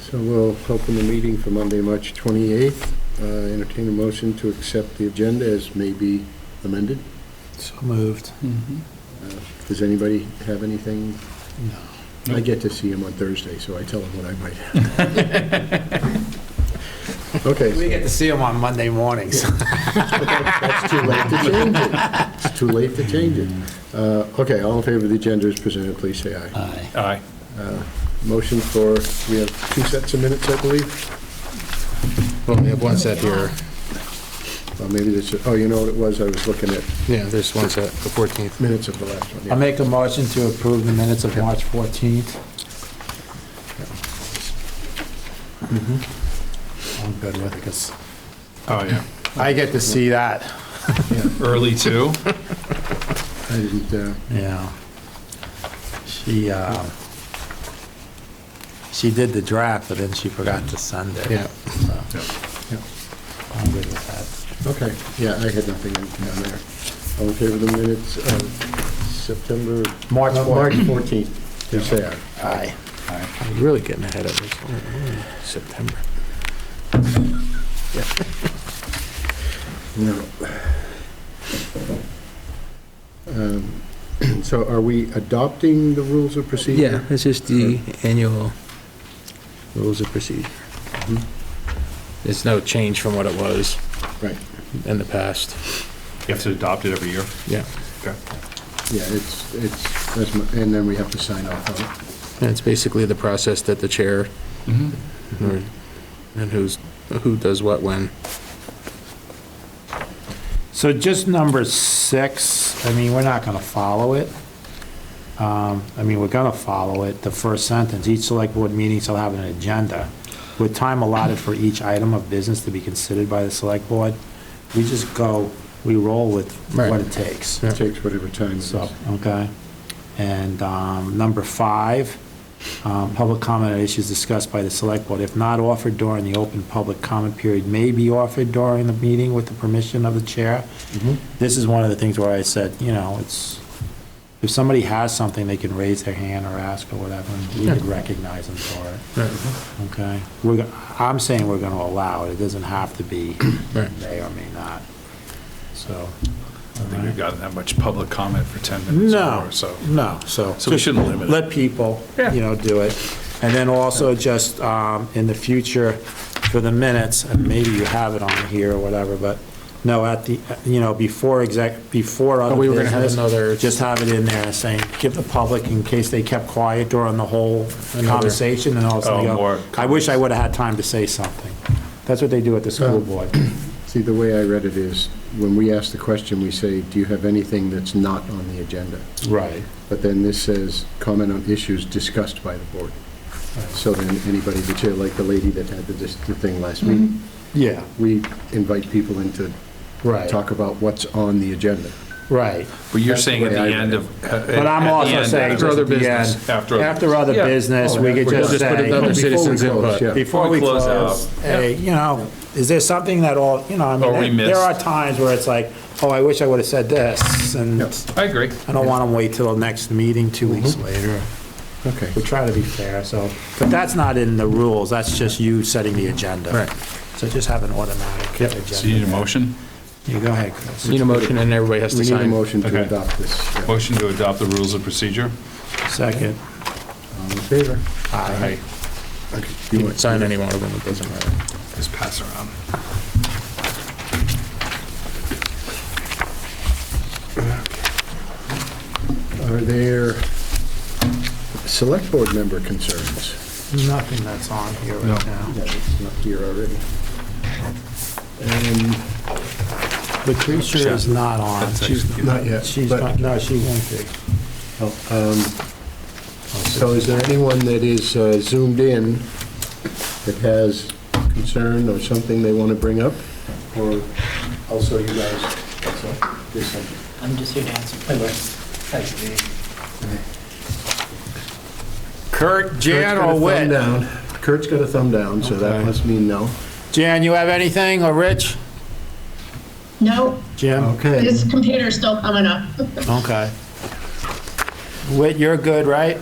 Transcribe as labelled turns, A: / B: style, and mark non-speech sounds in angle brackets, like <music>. A: So we'll open the meeting for Monday, March 28th. Uh, Entertain a motion to accept the agenda as may be amended.
B: So moved.
A: Does anybody have anything?
B: No.
A: I get to see him on Thursday, so I tell him what I might have.
B: We
A: Okay,
B: get to see him on Monday mornings.
A: that's too late to change it. It's too late to change it. Uh, Okay, all in favor of the agenda as presented, please say aye.
B: Aye.
C: Aye.
A: Motion for, we have two sets of minutes, I believe.
D: Well, we have one set here.
A: Well, maybe this, oh, you know what it was? I was looking at
D: Yeah, there's one set, the 14th.
A: minutes of the last one.
B: I
A: yeah.
B: make a motion to approve the minutes of March 14th. I'm Mm-hmm. good with it, because
D: Oh, yeah.
B: I get to see that.
C: <laughs> Early too?
A: I didn't, uh,
B: Yeah. She, um, she did the draft, but then she forgot to send it.
D: Yeah.
B: So,
A: yeah.
B: I'm good with
A: Okay, yeah, I had nothing in- down there. All in favor of the minutes of September?
B: March
A: uh,
B: 14th.
A: March 14th, please say aye.
B: that. Aye. Mm-hmm.
D: I'm really getting ahead of this. Oh, September.
A: No. Um, <clears throat> So are we adopting the rules of procedure?
E: Yeah, this is the annual rules of procedure.
D: It's Mm-hmm. no change from what it was
A: Right,
D: in the past.
C: You have to adopt it every year?
D: Yeah.
C: Okay.
A: yeah, it's, it's, that's my- and then we have to sign off on it.
D: And it's basically the process that the chair, or- and who's, who does what when.
B: So just number six, I mean, we're not going to follow it. Um, I mean, we're going to follow it, the first sentence, each select board meeting shall have an agenda with time allotted for each item of business to be considered by the select board. We just go, we roll with what
D: Right.
B: it takes.
A: It takes whatever time it is.
B: So, okay. And um, number five, um, public comment on issues discussed by the select board, if not offered during the open public comment period, may be offered during the meeting with the permission of the chair. This is one of the things where I said, you know, it's, if somebody has something, they can raise their hand or ask or whatever, and we could recognize them for it, okay? We're, go- I'm saying we're going to allow it, it doesn't have to be
D: Right.
B: may or may not, so.
C: I think we've gotten that much public comment for 10 minutes or
B: No,
C: more, so.
B: no, so.
C: So we shouldn't limit it.
B: Let people, you know, do it. And then also just um, in the future, for the minutes, and maybe you have it on here or whatever, but no, at the, you know, before exec,
C: Oh,
B: before other
D: we were gonna have
B: business,
D: another-
B: Just have it in there saying, give the public, in case they kept quiet during the whole conversation, and all of a sudden
C: Oh,
B: they
C: more
B: go, I wish I would have had time to say something. That's what they do at the
C: <clears throat>
B: school board.
A: See, the way I read it is, when we ask the question, we say, do you have anything that's not on the agenda?
B: Right.
A: But then this says, comment on issues discussed by the board. So then anybody, the chair, like the lady that had the dis- the thing last week,
B: Yeah,
A: we invite people in to
B: right,
A: talk about what's on the agenda.
B: right.
C: But you're saying at
A: the
C: the
A: way I
C: end
A: read
C: of. uh,
B: But I'm also saying,
C: After
B: just
C: other
B: at the end,
C: business.
B: after other
C: Yeah.
B: business, we could
A: We'll
B: just
D: just put it
B: say,
D: under citizens input.
B: before we
C: Before we close
B: close,
C: out.
B: hey, you know, is there something that all, you know, I
C: Or we
B: mean, there- there are
C: missed.
B: times where it's like, oh, I wish I would've said this, and
A: Yep.
B: I
C: I agree.
B: don't wanna wait till the next meeting two weeks
C: Mm-hmm.
B: later.
A: Okay,
B: We try to be fair, so, but that's not in the rules, that's just you setting the agenda.
D: Right.
B: So just have an automatic agenda.
C: So you need a motion?
B: You go ahead, Chris.
D: Need a motion and everybody has
A: we
D: to
A: need a
D: sign.
A: motion to
C: Okay.
A: adopt this. yeah.
C: Motion to adopt the rules of procedure?
B: Second.
A: All in favor?
B: Aye.
D: You
A: Okay, you
D: can
A: want-
D: sign any one of them, it doesn't matter.
C: Just pass around.
A: Are there select board member concerns?
B: Nothing that's on here right now.
A: Yeah, it's not here already. Um, And
B: The creature is not on.
C: She's
A: Not yet.
B: She's
A: but-
B: not, no, she won't be.
A: So is there anyone that is uh, zoomed in that has concern or something they want to bring up? Or also you guys? also, this one.
F: I'm just here to answer questions.
B: Kurt,
A: Kurt's got
B: Jan,
A: a
B: or
A: thumb
B: Whit?
A: down. Kurt's got a thumb down, so that
B: Okay.
A: must mean no.
B: Jan, you have anything, or Rich?
G: No,
B: Jim?
A: Okay.
G: his computer's still coming up.
B: Okay. Whit, you're good, right?